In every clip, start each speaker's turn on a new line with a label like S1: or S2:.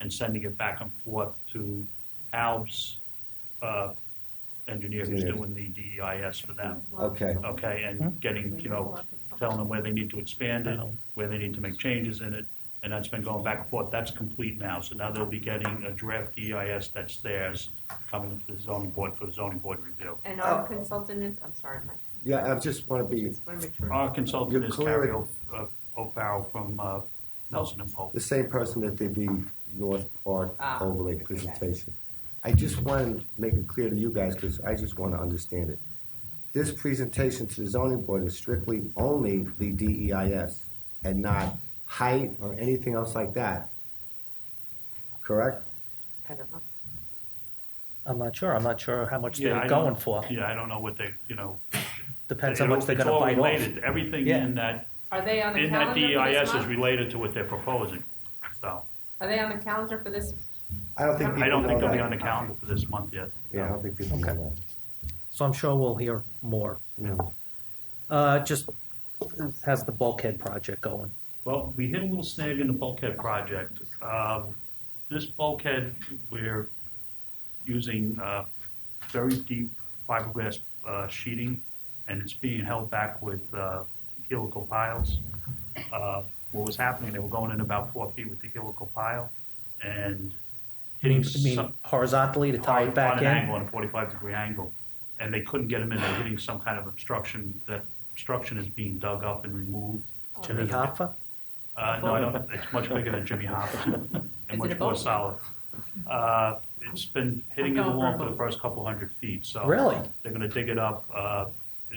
S1: and sending it back and forth to Al's uh, engineer who's
S2: Engineer.
S1: doing the DEIS for them,
S2: Okay.
S3: Mm-hmm.
S1: okay? And getting, you know, telling them where they need to expand it, where they need to make changes in it, and that's been going back and forth. That's complete now, so now they'll be getting a draft EIS that's theirs, coming to the zoning board for the zoning board review.
S4: And our consultant is, I'm sorry, Mike,
S2: Yeah, I just want to be
S4: just want to make sure.
S1: Our consultant
S2: You're
S1: is
S2: clear.
S1: Carrie O- uh, O'Farrell from uh, Nelson and Pope.
S2: the same person that did the North Park
S4: Ah,
S2: overlay presentation. I just want to make it clear to you guys, because I just want to understand it. This presentation to the zoning board is strictly only the DEIS and not height or anything else like that. Correct?
S4: I don't know.
S3: I'm not sure. I'm not sure how much
S1: Yeah,
S3: they're
S1: I
S3: going
S1: don't-
S3: for.
S1: Yeah, I don't know what they, you know.
S3: Depends
S1: it-
S3: how much they're going to bite
S1: It's all related, everything
S3: Yeah.
S1: in that,
S4: Are they on the
S1: in that
S4: calendar for this
S1: DEIS is
S4: month?
S1: related to what they're proposing, so.
S4: Are they on the calendar for this?
S2: I don't think people
S1: I don't think
S2: know
S1: they'll be
S2: that.
S1: on the calendar for this month yet.
S2: Yeah, I don't think people
S3: Okay.
S2: know
S3: off. So I'm sure we'll hear more.
S2: that. No.
S3: Uh, just has the bulkhead project going.
S1: Well, we hit a little snag in the bulkhead project. Um, This bulkhead, we're using uh, very deep fiberglass uh, sheeting, and it's being held back with uh, helical piles. Uh, What was happening, they were going in about four feet with the helical pile and hitting
S3: I mean,
S1: some,
S3: horizontally to tie it back
S1: on
S3: in.
S1: an angle, on a 45 degree angle, and they couldn't get them in. They're hitting some kind of obstruction. That obstruction is being dug up and removed.
S4: Oh,
S3: Jimmy Hoffa.
S1: Uh, no, I don't, it's much bigger than Jimmy Hopper and
S4: Is it
S1: much
S4: a
S1: more
S4: boat?
S1: solid. Uh, it's been hitting it
S4: I'm going for a
S1: along for the
S4: boat.
S1: first couple hundred feet, so.
S3: Really?
S1: They're gonna dig it up. Uh,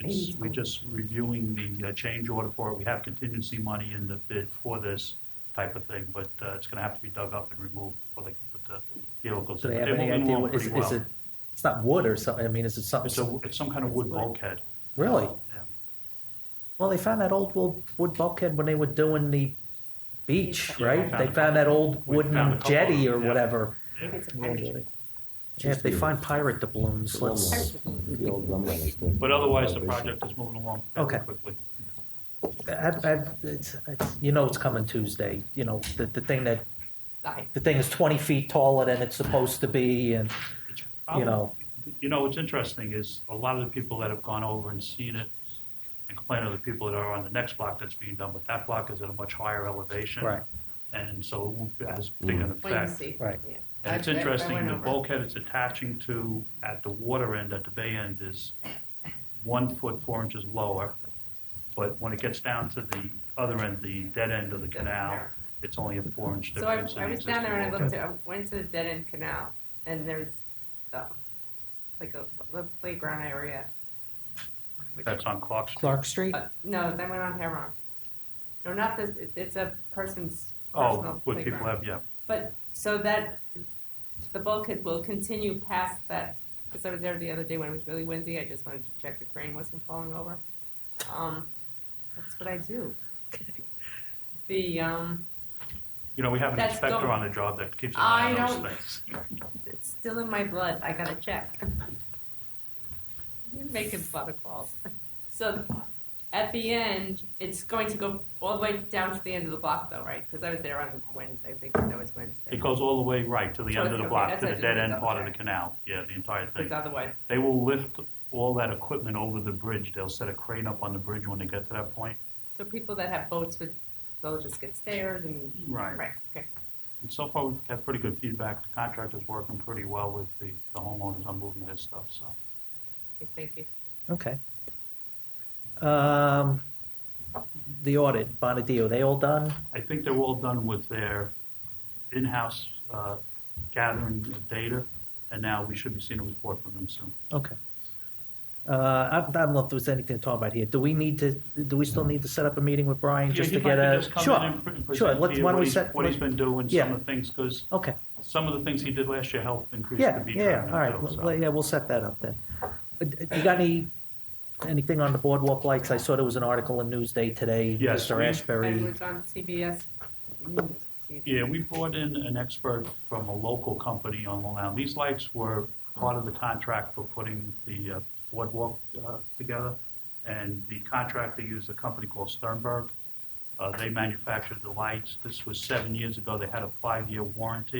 S1: it's, we're just reviewing the uh, change order for it. We have contingency money in the bid for this type of thing, but, uh, it's gonna have to be dug up and removed before they can put the vehicles
S3: Do
S1: in.
S3: they
S1: But
S3: have
S1: they're
S3: any
S1: moving
S3: idea
S1: along
S3: what is,
S1: pretty
S3: is
S1: well.
S3: it? It's not wood or something. I mean, is it something?
S1: It's a, it's some kind of wood
S4: It's wood.
S1: bulkhead.
S3: really?
S1: Yeah.
S3: Well, they found that old wood, wood bulkhead when they were doing the beach,
S1: Yeah, we
S3: right?
S1: found
S3: they
S1: a
S3: found that old
S1: We found a
S3: wooden
S1: couple of
S3: jetty
S1: them,
S3: or
S1: yeah.
S3: whatever.
S4: Maybe it's a
S2: Yeah.
S4: pirate.
S3: Yeah, if they find pirate doubloons, let's.
S2: The old drummer was the-
S1: But otherwise, the project is moving along fairly
S3: Okay.
S1: quickly.
S3: I've, I've, it's, it's, you know, it's coming Tuesday. You know, the, the thing that
S4: Aye.
S3: the thing is 20 feet taller than it's supposed to be, and
S1: It's
S3: you know,
S1: You know, what's interesting is a lot of the people that have gone over and seen it and complain are the people that are on the next block that's being done, but that block is at a much higher elevation.
S3: Right.
S1: And so it won't be as big an
S4: Wait and
S1: effect.
S4: see.
S3: Right.
S4: Yeah.
S1: And it's
S4: I- I- I
S1: interesting,
S4: went
S1: the
S4: over.
S1: bulkhead it's attaching to at the water end, at the bay end, is one foot, four inches lower. But when it gets down to the other end, the dead end of the canal, it's only a four inch
S4: So I,
S1: difference. in
S4: I
S1: the
S4: was down there and I
S1: existing
S4: looked, at- I went to the dead end canal and there's, um, like a, the playground area.
S1: bulkhead. That's on Clark Street.
S3: Clark Street.
S4: Uh, No, that went on Heron. No, not this, it- it's a person's
S1: Oh,
S4: personal
S1: what people
S4: playground.
S1: have, yeah.
S4: But, so that, the bulkhead will continue past that, because I was there the other day when it was really windy, I just wanted to check the crane wasn't falling over. Um, that's what I do. The, um,
S1: You know, we have an
S4: That's
S1: inspector
S4: dumb.
S1: on the job that keeps an
S4: I
S1: eye on
S4: don't-
S1: those things.
S4: it's still in my blood, I gotta check. You're making butter calls. So, at the end, it's going to go all the way down to the end of the block though, right? Because I was there on Wednesday, I think that was Wednesday.
S1: It goes all the way right to the
S4: So
S1: end
S4: it's
S1: of the
S4: okay,
S1: block,
S4: that's
S1: to
S4: it,
S1: the
S4: just
S1: dead
S4: a
S1: end
S4: double
S1: part of the
S4: check.
S1: canal. Yeah, the entire
S4: Because
S1: thing.
S4: otherwise,
S1: They will lift all that equipment over the bridge. They'll set a crane up on the bridge when they get to that point.
S4: so people that have boats would, they'll just get stairs and, right, okay.
S1: And so far, we've had pretty good feedback. The contractor's working pretty well with the the homeowners on moving this stuff, so.
S4: Okay, Thank you.
S3: Okay. Um, the audit, Bonadio, they all done?
S1: I think they're all done with their in-house uh, gathering of data, and now we should be seeing a report from them soon.
S3: Okay. Uh, I, I don't know if there's anything to talk about here. Do we need to, do we still need to set up a meeting with Brian
S1: Yeah,
S3: just to
S1: he'd
S3: get
S1: like
S3: a?
S1: just come in and pre-
S3: Sure, sure.
S1: present to
S3: Let's,
S1: you
S3: why don't
S1: what
S3: we
S1: he's-
S3: set?
S1: What he's been doing, some
S3: Yeah.
S1: of the things, because
S3: Okay.
S1: some of the things he did last year helped increase the
S3: Yeah,
S1: beach
S3: yeah,
S1: revenue.
S3: all right,
S1: too,
S3: Well,
S1: so.
S3: well, yeah, we'll set that up then. Uh, d- You got any, anything on the boardwalk lights? I saw there was an article in Newsday today.
S1: Yes,
S3: Mr.
S1: we-
S4: I
S3: Ashbury,
S4: was on CBS News. TV.
S1: Yeah, we brought in an expert from a local company on Long Island. These lights were part of the contract for putting the uh, boardwalk uh, together. And the contractor used a company called Sternberg. Uh, They manufactured the lights. This was seven years ago. They had a five-year warranty.